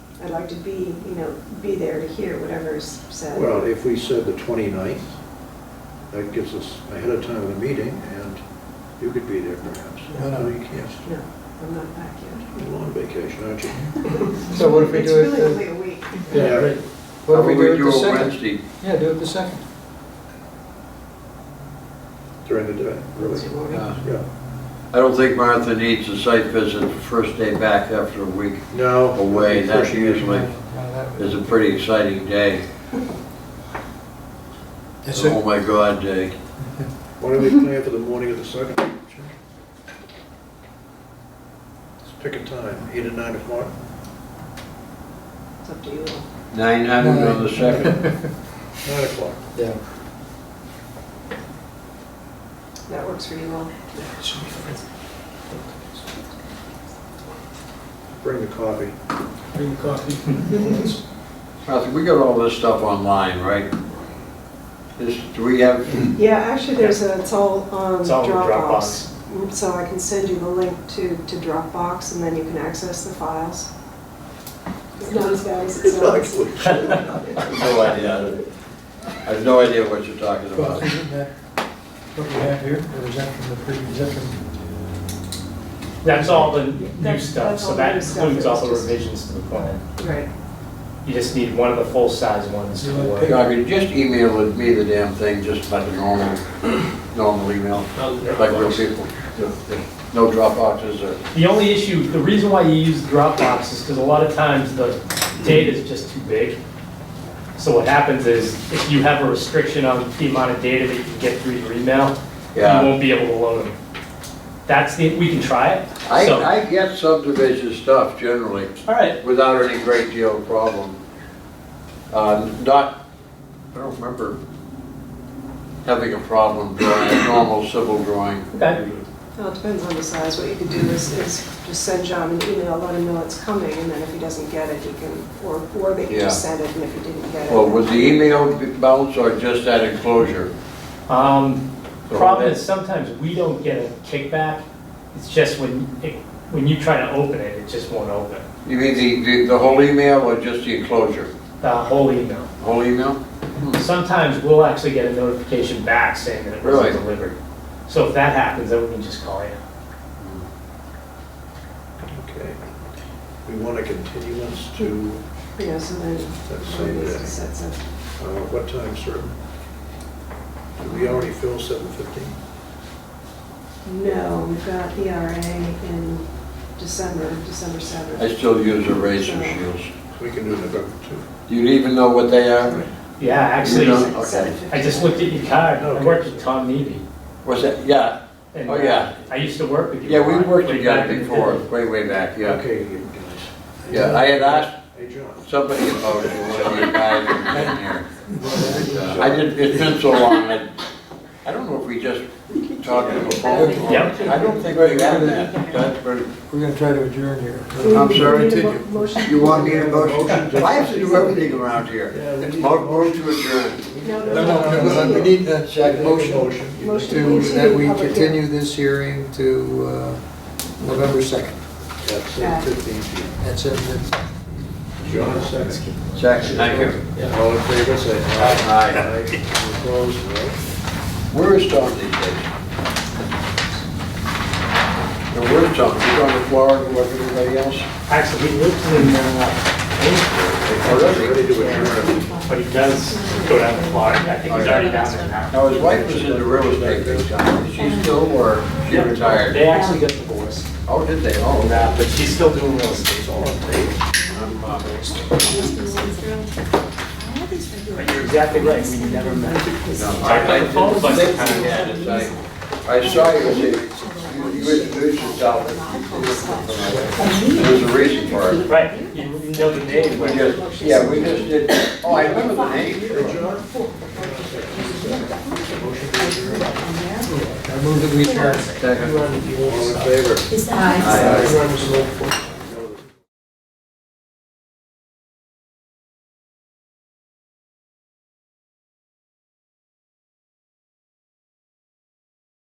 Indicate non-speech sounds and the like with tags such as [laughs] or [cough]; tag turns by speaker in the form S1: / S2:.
S1: I'd like to be, you know, be there to hear whatever is said.
S2: Well, if we said the 29th, that gives us ahead of time of the meeting, and you could be there perhaps.
S3: No, no.
S2: you can't.
S1: No, I'm not back
S2: You're on vacation, aren't you?
S1: yet.
S3: So what if we do it
S1: It's
S3: the-
S1: really only a week.
S3: Yeah, right. What
S4: How
S3: if we
S4: about
S3: do it the
S4: it
S3: second?
S4: Wednesday?
S3: Yeah, do it the second.
S2: During the day, really?
S1: Wednesday morning.
S3: Uh,
S2: Yeah.
S4: I don't think Martha needs a site visit the first day back after a week
S2: No.
S4: away. That usually
S3: Now that would-
S4: is a pretty exciting day.
S3: Is
S4: Oh
S3: it-
S4: my God day.
S2: Why don't we plan for the morning of the second? Let's pick a time, eight or nine o'clock.
S1: It's up to you all.
S4: Nine hundred on
S3: [laughs]
S4: the second.
S2: Nine o'clock.
S3: Yeah.
S1: That works for you all.
S2: Bring the coffee.
S3: Bring the [laughs] coffee.
S4: Martha, we got all this stuff online, right? Is, do we have,
S1: Yeah, actually, there's a, it's all on
S5: It's all on
S1: Dropbox. Mm, So I can send you the link to, to Dropbox, and then you can access the files. It's not as bad
S2: [laughs]
S1: as it sounds.
S4: I have no idea. I have no idea what you're talking
S3: Well,
S4: about.
S3: isn't that what we have here, or is that from the previous, is that from,
S5: That's all the new
S1: That's-
S5: stuff,
S1: that's all
S5: so that
S1: new stuff.
S5: includes all the
S1: It's just-
S5: revisions to the plan.
S1: Right.
S5: You just need one of the full-size ones to
S3: You like
S5: work.
S3: pick-
S4: I mean, just email it- me the damn thing, just like a normal, normal email, like real people. No Dropboxes or
S5: The only issue, the reason why you use Dropbox is because a lot of times the data is just too big. So what happens is, if you have a restriction on the amount of data that you can get through your email, you
S4: Yeah.
S5: won't be able to load them. That's the, we can try it.
S4: I,
S5: So-
S4: I get subdivision stuff generally
S5: All right,
S4: without any great deal of problem. Uh, Not, I don't remember having a problem drawing a normal civil drawing.
S5: okay.
S1: Well, it depends on the size. What you could do is, is just send John an email, let him know it's coming, and then if he doesn't get it, he can, or, or they can just
S4: Yeah.
S1: send it, and if he didn't get it.
S4: Well, was the email bounce or just that enclosure?
S5: Um,
S4: So
S5: Problem
S4: that-
S5: is sometimes we don't get a kickback. It's just when, it- when you try to open it, it just won't open.
S4: You mean the- the, the whole email or just the enclosure?
S5: The whole email.
S4: Whole email?
S5: Sometimes we'll actually get a notification back saying that it wasn't
S4: Really?
S5: delivered. So if that happens, then we can just call you.
S2: Okay. We want a continuance to,
S1: You know, so then,
S2: That's
S1: one
S2: so
S1: of these
S2: bad.
S1: sets up.
S2: uh, what time, sir? Did we already fill seven fifteen?
S1: No, we've got ERA in December, December seventh.
S4: I still use eraser shields.
S2: We can do November two.
S4: Do you even know what they are?
S5: Yeah, actually,
S4: You don't?
S5: I just looked at your card. I worked with Tom Neely.
S4: What's that, yeah,
S5: and,
S4: Oh, yeah.
S5: uh, I used to work with you.
S4: yeah, we
S5: a lot
S4: worked
S5: way back
S4: together
S5: in the
S4: before,
S5: day.
S4: way, way back, yeah.
S2: Okay, you guys.
S4: Yeah, I had asked
S2: Hey, John.
S4: Somebody opposed it, one of you guys in here. I did, it's been so long, I, I don't know if we just talked to the phone. or-
S5: Yep.
S4: I don't think we have that. That's pretty-
S3: we're gonna try to adjourn here.
S4: I'm sorry,
S1: Need a mo-
S4: did
S1: Motion.
S4: you want me to motion? I have to do everything around here. It's mo- move to adjourn.
S1: No,
S3: No, no, no, no, we need a motion
S1: Motion
S3: to,
S1: to
S3: that we
S1: public hearing.
S3: continue this hearing to uh, November second.
S2: At seven fifteen.
S3: That's it, that's-
S2: John, second.
S4: Jackson, thank you.
S2: All in favor, say aye.
S4: Aye.
S2: Aye. Opposed, no.
S4: Where is Tom these days? Now, where's Tom? He's on the floor like everybody else?
S5: Actually, he lives in, uh,
S2: Ready to adjourn.
S5: Maine, but he does go down to Florida. I think he's already down there now.
S4: Now, his wife was in the real estate big time. Is she still, or she
S5: Yep.
S4: retired?
S5: They actually got divorced. Uh,
S4: Oh, did they? Oh, that.
S5: But she's still doing real estate.
S4: I'm, uh,
S5: But you're exactly right, we never met.
S4: No, I, I didn't think you had it, I, I saw you, you, you introduced yourself. There's a reason for it.
S5: Right, you you know the name,
S4: We
S5: but
S4: just, yeah, we just did, oh, I remember the name.
S3: I move that we adjourn.
S4: Second.
S2: All in favor?
S6: Aye.
S4: Aye.
S3: uh,
S2: Everyone was voting for.